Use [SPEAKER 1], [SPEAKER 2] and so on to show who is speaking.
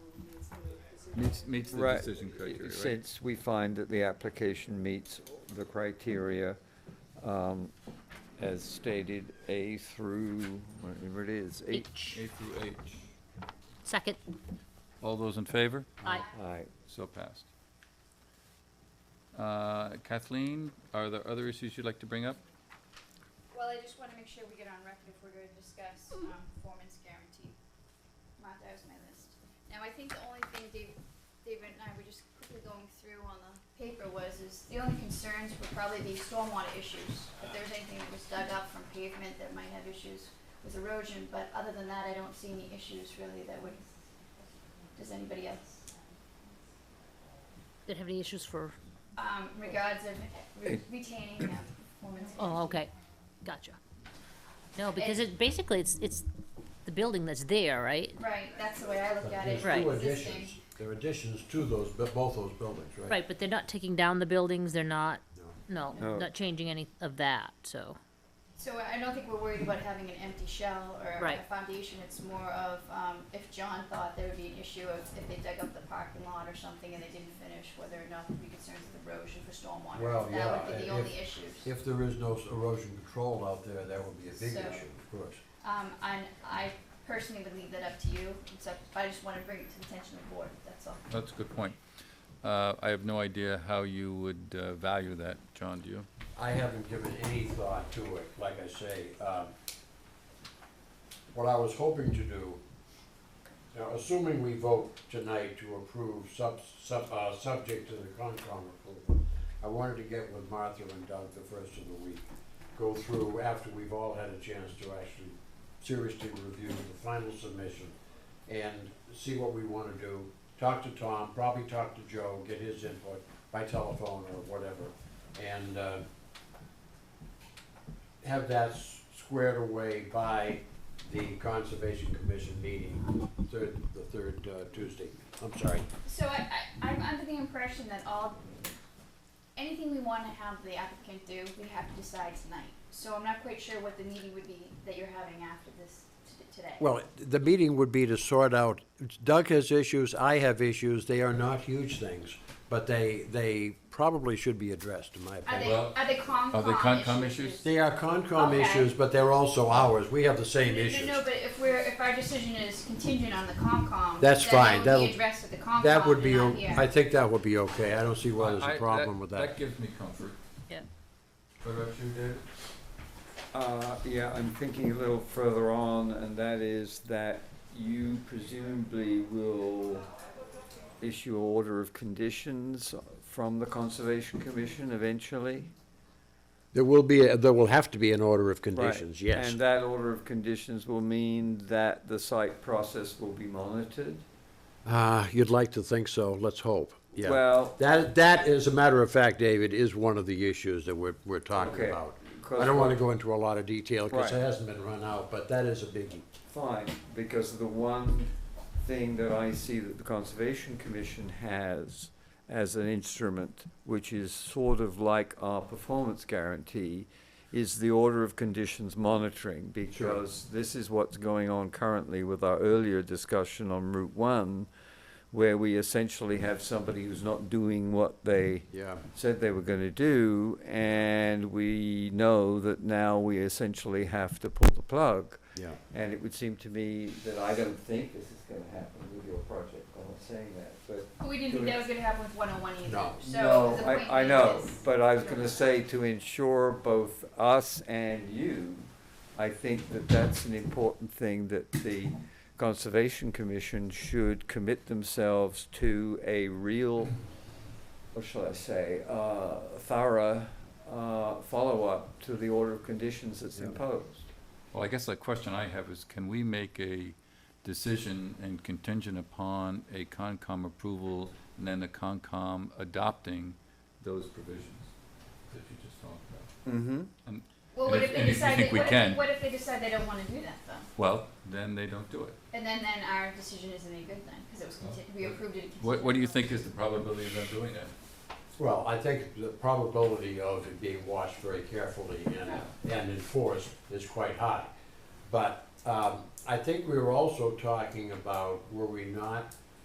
[SPEAKER 1] Meets, meets the
[SPEAKER 2] Right,
[SPEAKER 1] decision criteria, right?
[SPEAKER 2] Since we find that the application meets the criteria um, as stated, A through, whatever it is, H.
[SPEAKER 1] A through H.
[SPEAKER 3] Second.
[SPEAKER 1] All those in favor?
[SPEAKER 3] Aye.
[SPEAKER 2] Aye.
[SPEAKER 1] So passed. Uh, Kathleen, are there other issues you'd like to bring up?
[SPEAKER 4] Well, I just wanna make sure we get on record if we're gonna discuss, um, performance guarantee. Mark, that was my list. Now, I think the only thing Dave, David and I were just quickly going through on the paper was, is the only concerns were probably the stormwater issues. If there's anything that was dug up from pavement that might have issues with erosion, but other than that, I don't see any issues really that would, does anybody else?
[SPEAKER 3] Did have any issues for,
[SPEAKER 4] Um, regards of re- retaining that performance guarantee.
[SPEAKER 3] oh, okay, gotcha. No, because it, basically, it's, it's the building that's there, right?
[SPEAKER 4] Right, that's the way I look at it.
[SPEAKER 3] Right.
[SPEAKER 5] There's two
[SPEAKER 4] Existing.
[SPEAKER 5] additions, there are additions to those, bu- both those buildings, right?
[SPEAKER 3] Right, but they're not taking down the buildings, they're not,
[SPEAKER 5] No.
[SPEAKER 3] no,
[SPEAKER 2] No.
[SPEAKER 3] not changing any of that, so.
[SPEAKER 4] So I don't think we're worried about having an empty shell or
[SPEAKER 3] Right.
[SPEAKER 4] a foundation, it's more of, um, if John thought there would be an issue of if they dug up the parking lot or something and they didn't finish, whether or not there'd be concerns with erosion for stormwater.
[SPEAKER 5] Well,
[SPEAKER 4] That
[SPEAKER 5] yeah,
[SPEAKER 4] would be the
[SPEAKER 5] and
[SPEAKER 4] only issues.
[SPEAKER 5] If there is no s- erosion control out there, that would be a big
[SPEAKER 4] So-
[SPEAKER 5] issue, of course.
[SPEAKER 4] Um, and I personally would leave that up to you, it's up, I just wanna bring it to the attention of the board, that's all.
[SPEAKER 1] That's a good point. Uh, I have no idea how you would uh, value that, John, do you?
[SPEAKER 5] I haven't given any thought to it, like I say. um, What I was hoping to do, now assuming we vote tonight to approve sub, sub, uh, subject to the Concom approval, I wanted to get with Martha and Doug the first of the week, go through after we've all had a chance to actually seriously review the final submission and see what we wanna do, talk to Tom, probably talk to Joe, get his input by telephone or whatever, and, uh, have that s- squared away by the Conservation Commission meeting, third, the third uh, Tuesday. I'm sorry,
[SPEAKER 4] So I, I, I'm under the impression that all, anything we wanna have the applicant do, we have to decide tonight. So I'm not quite sure what the meeting would be that you're having after this t- today.
[SPEAKER 5] Well, the meeting would be to sort out, Doug has issues, I have issues, they are not huge things, but they, they probably should be addressed, in my
[SPEAKER 4] Are
[SPEAKER 5] opinion.
[SPEAKER 4] they,
[SPEAKER 1] Well,
[SPEAKER 4] are they Concom?
[SPEAKER 1] are they Concom issues?
[SPEAKER 5] They are Concom
[SPEAKER 4] Okay.
[SPEAKER 5] issues, but they're also ours, we have the same issues.
[SPEAKER 4] No, no, but if we're, if our decision is contingent on the Concom.
[SPEAKER 5] That's
[SPEAKER 4] then
[SPEAKER 5] fine.
[SPEAKER 4] That would
[SPEAKER 5] That'll-
[SPEAKER 4] be addressed with the Concom
[SPEAKER 5] That would be,
[SPEAKER 4] and not
[SPEAKER 5] o-
[SPEAKER 4] here.
[SPEAKER 5] I think that would be okay, I don't see why there's
[SPEAKER 1] I-
[SPEAKER 5] a
[SPEAKER 1] that-
[SPEAKER 5] problem with
[SPEAKER 1] That
[SPEAKER 5] that.
[SPEAKER 1] gives me comfort.
[SPEAKER 3] Yeah.
[SPEAKER 1] What about you, David?
[SPEAKER 2] Uh, Yeah, I'm thinking a little further on, and that is that you presumably will issue an order of conditions from the Conservation Commission eventually?
[SPEAKER 5] There will be, a- there will have to be an order of conditions,
[SPEAKER 2] Right.
[SPEAKER 5] yes.
[SPEAKER 2] And that order of conditions will mean that the site process will be monitored?
[SPEAKER 5] Uh, you'd like to think so, let's hope, yeah.
[SPEAKER 2] Well,
[SPEAKER 5] That, that, as a matter of fact, David, is one of the issues that we're, we're talking
[SPEAKER 2] Okay.
[SPEAKER 5] about.
[SPEAKER 2] 'cause
[SPEAKER 5] I don't wanna go into a lot of detail,
[SPEAKER 2] Right.
[SPEAKER 5] cause it hasn't been run out, but that is a biggie.
[SPEAKER 2] fine, because the one thing that I see that the Conservation Commission has as an instrument, which is sort of like our performance guarantee, is the order of conditions monitoring, because this is what's going on currently with our earlier discussion on Route One, where we essentially have somebody who's not doing what they
[SPEAKER 5] Yeah.
[SPEAKER 2] said they were going to do, and we know that now we essentially have to pull the plug.
[SPEAKER 5] Yeah.
[SPEAKER 2] And it would seem to me that I don't think this is going to happen with your project. I'm not saying that, but
[SPEAKER 4] But We didn't think that was gonna happen with one oh one either,
[SPEAKER 5] No.
[SPEAKER 4] so
[SPEAKER 2] no,
[SPEAKER 4] the point
[SPEAKER 2] I, I know.
[SPEAKER 4] is-
[SPEAKER 2] But I was going to say to ensure both us and you, I think that that's an important thing that the Conservation Commission should commit themselves to a real, what shall I say, uh, thorough uh, follow-up to the order of conditions that's
[SPEAKER 5] Yeah.
[SPEAKER 2] imposed.
[SPEAKER 1] Well, I guess the question I have is, can we make a decision and contingent upon a Concom approval and then the Concom adopting those provisions that you just talked about?
[SPEAKER 2] Mm-hmm.
[SPEAKER 4] Well,
[SPEAKER 1] And
[SPEAKER 4] what
[SPEAKER 1] if-
[SPEAKER 4] if they
[SPEAKER 1] and if you
[SPEAKER 4] decide,
[SPEAKER 1] think
[SPEAKER 4] they-
[SPEAKER 1] we
[SPEAKER 4] what
[SPEAKER 1] can.
[SPEAKER 4] if, what if they decide they don't wanna do that though?
[SPEAKER 1] Well, then they don't do it.
[SPEAKER 4] And then, then our decision isn't any good then, cause it was, conti- we approved it.
[SPEAKER 1] What, what do you think
[SPEAKER 4] contingent
[SPEAKER 1] is the probability of them doing that?
[SPEAKER 5] Well, I think the probability of it being watched very carefully and, and enforced is quite high. But um, I think we were also talking about, were we not,